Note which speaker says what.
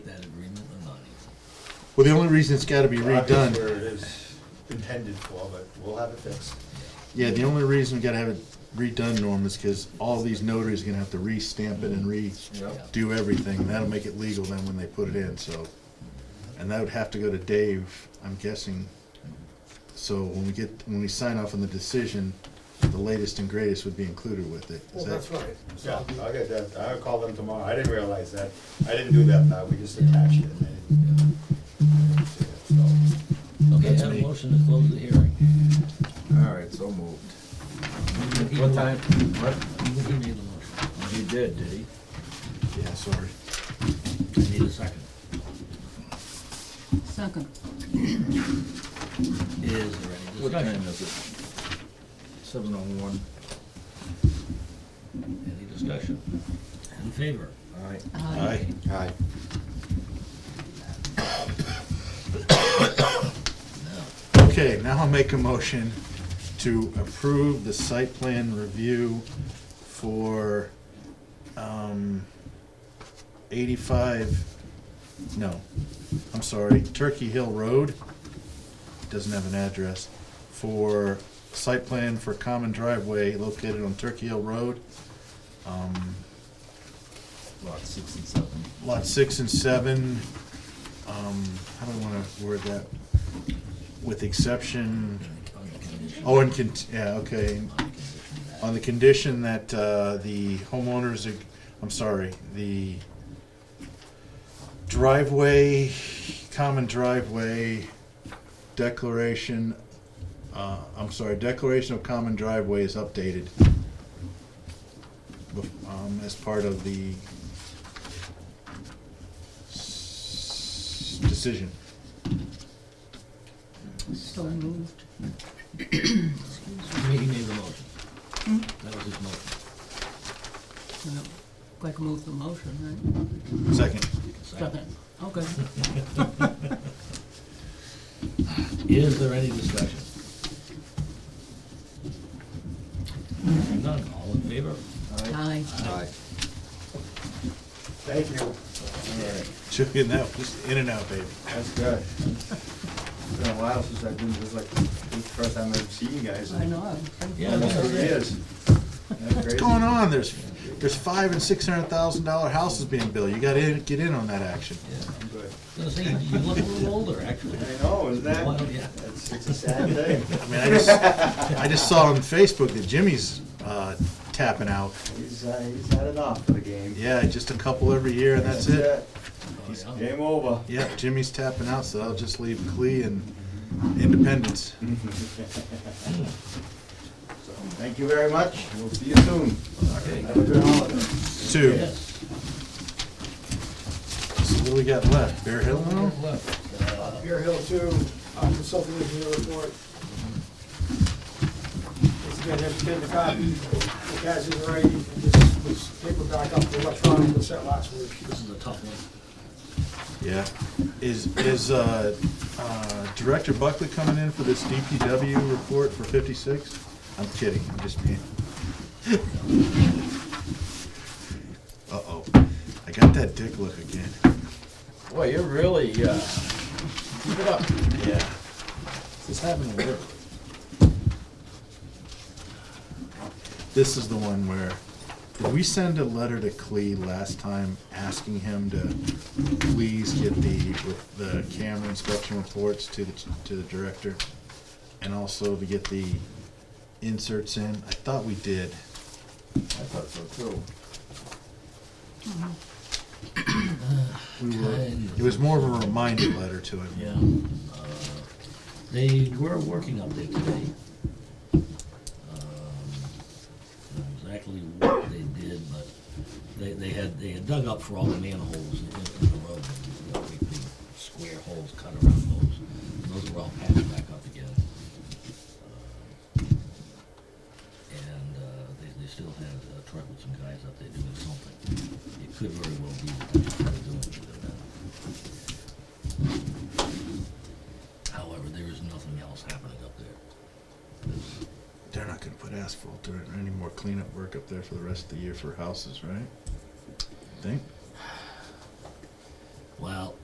Speaker 1: Well, the only reason it's gotta be
Speaker 2: Well, that's
Speaker 1: redone,
Speaker 2: Where it is intended for, but we'll have it fixed.
Speaker 1: yeah, the only reason we gotta have it redone, Norm, is because all these notaries are gonna have to re-stamp it and re-do everything. That'll make it legal then when they put it in, so. And that would have to go to Dave, I'm guessing. So when we get, when we sign off on the decision, the latest and greatest would be included with it. Is
Speaker 3: Well,
Speaker 1: that-
Speaker 3: that's right. So
Speaker 2: Yeah,
Speaker 3: I'll be-
Speaker 2: I'll get that, I'll call them tomorrow, I didn't realize that, I didn't do that, now, we just attached it, and I didn't, uh, I didn't see it, so.
Speaker 4: Okay, I
Speaker 1: That's
Speaker 4: have a
Speaker 1: me.
Speaker 4: motion to close the hearing.
Speaker 5: All right, so moved. What time? What?
Speaker 4: He made the motion.
Speaker 5: He did, did he?
Speaker 1: Yeah, sorry.
Speaker 4: I need a second.
Speaker 6: Second.
Speaker 4: Is there any
Speaker 5: What time
Speaker 4: discussion?
Speaker 5: is it? Seven oh one.
Speaker 4: Any discussion? In favor?
Speaker 5: All right.
Speaker 6: Aye.
Speaker 2: Aye.
Speaker 4: No.
Speaker 1: Okay, now I'll make a motion to approve the site plan review for, um, eighty-five, no, I'm sorry, Turkey Hill Road, doesn't have an address, for site plan for common driveway located on Turkey Hill Road, um,
Speaker 5: Lot six and seven.
Speaker 1: lot six and seven, um, how do I wanna word that? With exception
Speaker 4: On the condition-
Speaker 1: Oh, and con, yeah, okay,
Speaker 4: on the condition that-
Speaker 1: on the condition that, uh, the homeowners, ag- I'm sorry, the driveway, common driveway declaration, uh, I'm sorry, declaration of common driveway is updated bef- um, as part of the s- decision.
Speaker 6: So moved.
Speaker 4: He made the motion. That was his motion.
Speaker 6: Well, Quick Uh, move the motion,
Speaker 1: Second.
Speaker 6: right?
Speaker 4: Second.
Speaker 6: Second. Okay.
Speaker 4: Is there any discussion? None, all in favor?
Speaker 6: Aye.
Speaker 4: Aye.
Speaker 2: Thank you.
Speaker 1: Took it out, just in and out, baby.
Speaker 2: That's good. It's been a while since I've been, this is like, this is the first time I've seen you guys
Speaker 6: I
Speaker 2: in
Speaker 6: know.
Speaker 4: Yeah,
Speaker 2: almost
Speaker 4: that's
Speaker 2: three
Speaker 4: it.
Speaker 2: years. What's
Speaker 1: What's going on? There's, there's five and six hundred thousand dollar houses being built. You gotta in- get in on that action.
Speaker 4: Yeah.
Speaker 2: I'm good.
Speaker 4: I was gonna say, you look a little older, actually.
Speaker 2: I know, isn't
Speaker 4: Well,
Speaker 2: that?
Speaker 4: yeah.
Speaker 2: It's, it's a sad thing.
Speaker 1: I mean, I just, I just saw on Facebook that Jimmy's, uh, tapping out.
Speaker 2: He's, uh, he's had enough for the game.
Speaker 1: Yeah, just a couple every year and that's it.
Speaker 4: Oh, yeah.
Speaker 2: Game over.
Speaker 1: Yeah, Jimmy's tapping out, so I'll just leave Clee and Independence.
Speaker 2: So, Thank you very much. We'll see you soon.
Speaker 4: Okay.
Speaker 2: Have a good holiday.
Speaker 1: Two.
Speaker 4: Yes.
Speaker 1: So what do we got left? Bear Hill now?
Speaker 3: Bear Hill Two, uh, consulting engineer report. Once again, have to get the copy, the guys in the writing, and this was paperback up to electronic, was sent last week.
Speaker 4: This is a tough one.
Speaker 1: Yeah. Is, is, uh, uh, Director Buckley coming in for this DPW report for fifty-six? I'm kidding, I'm just being. Uh-oh, I got that dick look again.
Speaker 5: Boy, you're really, uh, keep it up.
Speaker 1: Yeah. This happened to work. This is the one where, did we send a letter to Clee last time asking him to please get the, with the camera inspection reports to the, to the director? And also to get the inserts in? I thought we did.
Speaker 5: I thought so too.
Speaker 4: Mm-hmm.
Speaker 1: We were, it was more of a reminder letter to him.
Speaker 4: Yeah. uh, They were working up there today. Um, I don't know Exactly what they did, but they, they had, they had dug up for all the manholes in in the road. You know, big, big square holes cut around those. And Those were all patched back up again. Uh, And uh, they, they still had a truck with some guys up there doing something. It could very well be that that's what they're doing to them. However, there is nothing else happening up there.
Speaker 1: They're not gonna put asphalt or any more cleanup work up there for the rest of the year for houses, right? Think?